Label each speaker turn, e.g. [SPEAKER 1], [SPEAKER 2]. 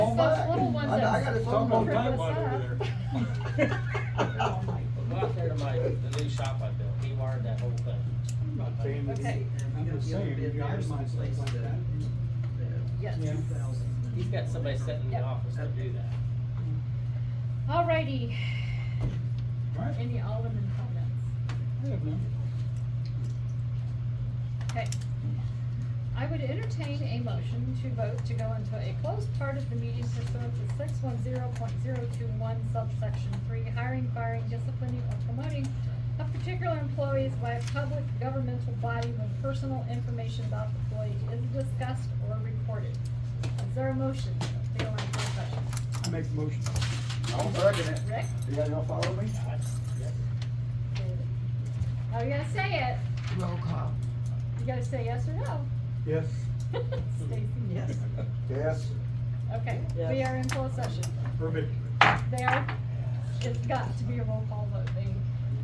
[SPEAKER 1] I I gotta talk about
[SPEAKER 2] Someone might
[SPEAKER 1] that.
[SPEAKER 2] want over there.
[SPEAKER 1] Oh, my.
[SPEAKER 3] Go out there to my, the new shop I built, he wired that whole thing.
[SPEAKER 2] I'm not saying that-
[SPEAKER 1] Okay.
[SPEAKER 2] I'm just saying, if you have some place like that.
[SPEAKER 1] Yes.
[SPEAKER 2] Yeah.
[SPEAKER 3] He's got somebody sitting in the
[SPEAKER 1] Yeah.
[SPEAKER 3] office to do that.
[SPEAKER 4] Alrighty,
[SPEAKER 2] Right?
[SPEAKER 4] any Alderman comments?
[SPEAKER 2] I have none.
[SPEAKER 4] Okay. I would entertain a motion to vote to go into a closed part of the meeting pursuant to six one zero point zero two one subsection three, hiring, firing, disciplining, or promoting of particular employees by a public governmental body when personal information about the employee is discussed or recorded. Is there a motion? to go into closed session?
[SPEAKER 2] I make the motion.
[SPEAKER 1] I'm working it.
[SPEAKER 4] Rick?
[SPEAKER 1] You guys gonna follow me?
[SPEAKER 4] Oh, you gotta say it.
[SPEAKER 5] Roll call.
[SPEAKER 4] You gotta say yes or no.
[SPEAKER 2] Yes.
[SPEAKER 4] Stacy?
[SPEAKER 5] Yes.
[SPEAKER 1] Yes.
[SPEAKER 4] Okay, we are in closed session.
[SPEAKER 2] Perfect.
[SPEAKER 4] There, it's got to be a roll call vote. They